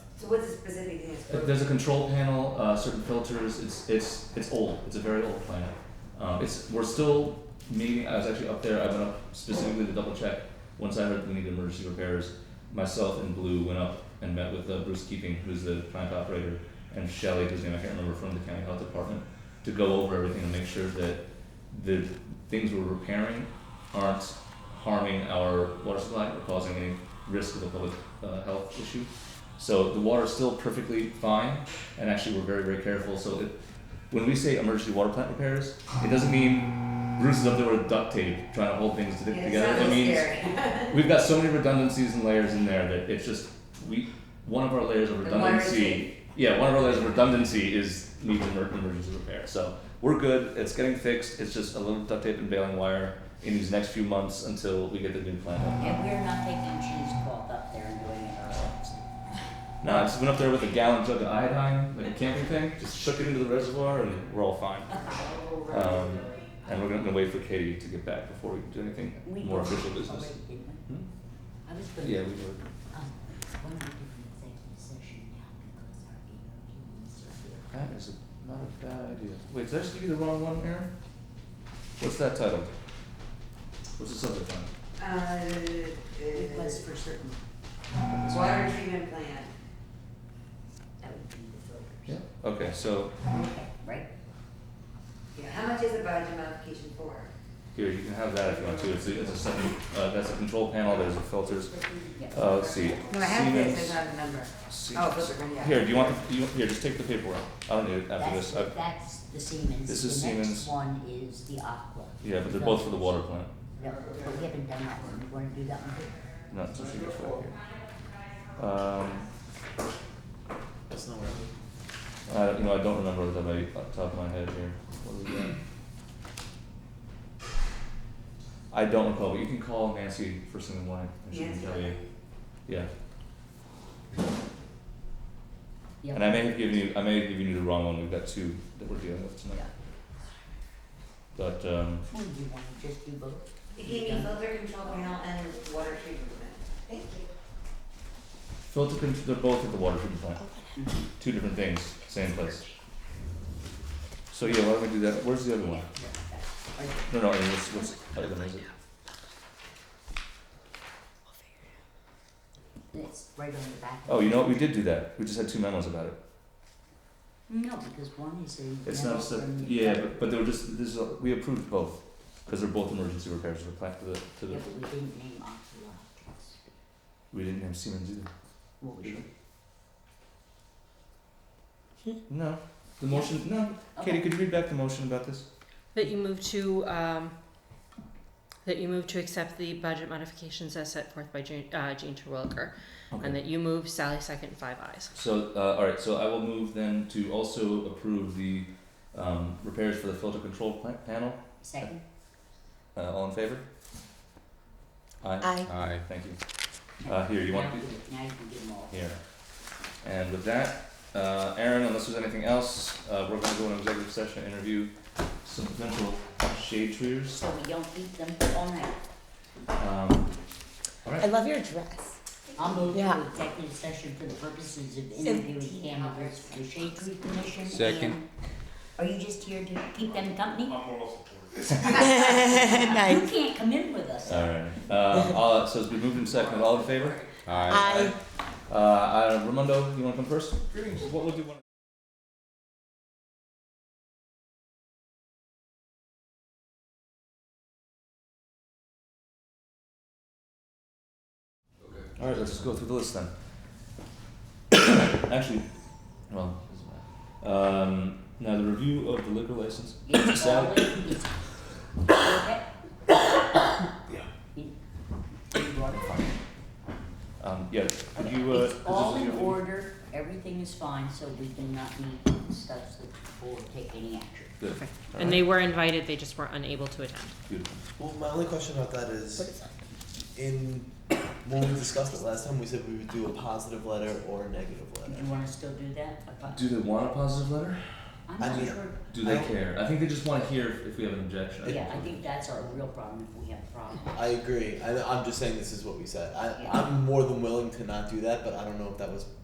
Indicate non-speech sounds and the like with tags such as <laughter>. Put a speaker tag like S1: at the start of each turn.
S1: So what's the specific thing?
S2: Uh, There's a control panel, uh, certain filters. It's it's it's old. It's a very old planet. Um, it's we're still meeting. I was actually up there. I went up specifically to double check. Once I heard we needed emergency repairs, myself and Blue went up and met with uh, Bruce Keeping, who's the plant operator, and Shelley, whose name I can't remember, from the county health department, to go over everything and make sure that the things we're repairing aren't harming our water supply or causing any risk of a public uh, health issue. So the water is still perfectly fine, and actually we're very very careful. So it, when we say emergency water plant repairs, it doesn't mean Bruce is up there with duct tape trying to hold things to-
S1: Yeah, it
S2: together.
S1: sounds
S2: It means
S1: scary.
S2: we've got so many redundancies and layers in there that it's just we one of our layers of
S1: The
S2: redundancy. Yeah, one of our layers of redundancy is needs emer- emergency repair. So we're good. It's getting fixed. It's just a little duct tape and baling wire in these next few months until we get the new plant. up.
S3: And we're not taking cheesecloth up there and doing it ourselves.
S2: No, I just went up there with a gallon jug of iodine, like a camping thing, just shook it into the reservoir, and we're all fine. Um, and we're gonna, gonna wait for Katie to get back before we do anything
S3: We
S2: more
S3: voted
S2: official business.
S3: already, didn't we?
S2: Hmm?
S3: I was gonna.
S2: Yeah, we Uh, voted.
S3: Um, when we do an executive session now because our interviews are here.
S2: That is a, not a bad idea. Wait, did I just give you the wrong one, Aaron? What's that title? What's the subject line?
S1: Uh,
S3: It
S1: uh,
S3: was for certain,
S1: water treatment plant.
S3: that would be the filters.
S2: Yeah. Okay, so
S3: Okay, right?
S1: Yeah, how much is a budget modification for?
S2: here you can have that if you want to. It's a, it's a second, uh, that's a control panel. There's a filters.
S1: Oh,
S3: Yes.
S2: Uh, let's see.
S1: No, I have this,
S2: Siemens-
S1: I have the number.
S2: Se-
S1: Oh, filter, yeah.
S2: Here, do you want the, you, here, just take the paperwork. I don't need it after
S3: That's,
S2: this. I,
S3: that's the Siemens.
S2: This is
S3: The
S2: Siemens.
S3: next one is the Aqua.
S2: yeah, but they're both for the water plant.
S3: No, but we haven't done that one, you wanna do that one?
S2: No, so she gets back here. Um,
S4: That's not where I'm.
S2: I, you know, I don't remember off the top of my- off the top of my head here. What was that? I don't recall, but you can call Nancy first thing in the morning and she can
S1: Nancy?
S2: tell you. Yeah,
S3: Yeah.
S2: and I may have given you, I may have given you the wrong one. We've got two that we're dealing with tonight.
S3: Yeah.
S2: But, um,
S3: Well, you wanna just do both?
S1: It gave me filter control panel and water treatment plant. Thank you.
S2: filter, con- they're both at the water treatment plant. Two different things, same place. So yeah, why don't we do that? Where's the other one? No, no, I mean, what's, what's, other than is it?
S3: It's right on the back.
S2: Oh, you know what? We did do that. We just had two memos about it.
S3: No, because one is a.
S2: It's
S3: memo
S2: not so,
S3: from the-
S2: yeah, but, but they were just, this is, a- we approved both, because they're both emergency repairs to the plant, to the, to
S3: Yeah,
S2: the,
S3: but we didn't name Oculus.
S2: we didn't have Siemens either.
S3: Well, we should.
S2: No, the motion, no, Katie,
S3: Okay.
S2: could you read back the motion about this?
S5: That you move to, um, that you move to accept the budget modifications as set forth by Jane, uh, Jean Terwilliger, and
S2: Okay.
S5: that you move Sally second, five eyes.
S2: So, uh, alright, so I will move then to also approve the, um, repairs for the filter control plant panel,
S3: Second,
S2: uh, all in favor? Aye.
S5: Aye.
S2: Aye, thank you. Uh, here, you want,
S3: now, you- now you can give them all.
S2: here. And with that, uh, Aaron, unless there's anything else, uh, we're gonna go into executive session, interview some potential shade trees.
S3: So we don't eat them all night.
S2: Um,
S6: I love your dress.
S3: I'll move to
S6: Yeah.
S3: executive session for the purposes of interviewing candidates for the shade tree commission
S4: Second.
S3: and- Are you just here to keep them company? You <laughs>
S6: nice.
S3: can't come in with us.
S2: alright, uh, all, so it's been moved and seconded, all in favor?
S6: I.
S2: Uh, uh, Ramondo, you wanna come first? What would you wanna? Alright, let's just go through the list then. <coughs> Actually, well, doesn't matter. Um, now the review of the liquor license.
S3: It's
S2: Sally?
S3: always, it's. Yeah. You brought it forward.
S2: Um, yeah, could you, uh,
S3: It's all
S2: this is
S3: in
S2: your-
S3: order, everything is fine, so we do not need to discuss this or take any action.
S2: Good,
S5: And they were invited, they just were unable to attend.
S2: beautiful.
S4: Well, my only question about that is, in, when we discussed it last time, we said we would do a positive letter or a negative
S3: Do
S4: letter.
S3: you wanna still do that? I thought-
S2: Do they want a positive letter?
S3: I'm
S4: I
S3: not
S4: mean-
S3: sure,
S2: Do they
S4: I-
S2: care? I think they just wanna hear if- if we have an objection.
S3: yeah, I think that's our real problem if we have a problem.
S4: I agree, I, I'm just saying this is what we said, I,
S3: Yeah.
S4: I'm more than willing to not do that, but I don't know if that was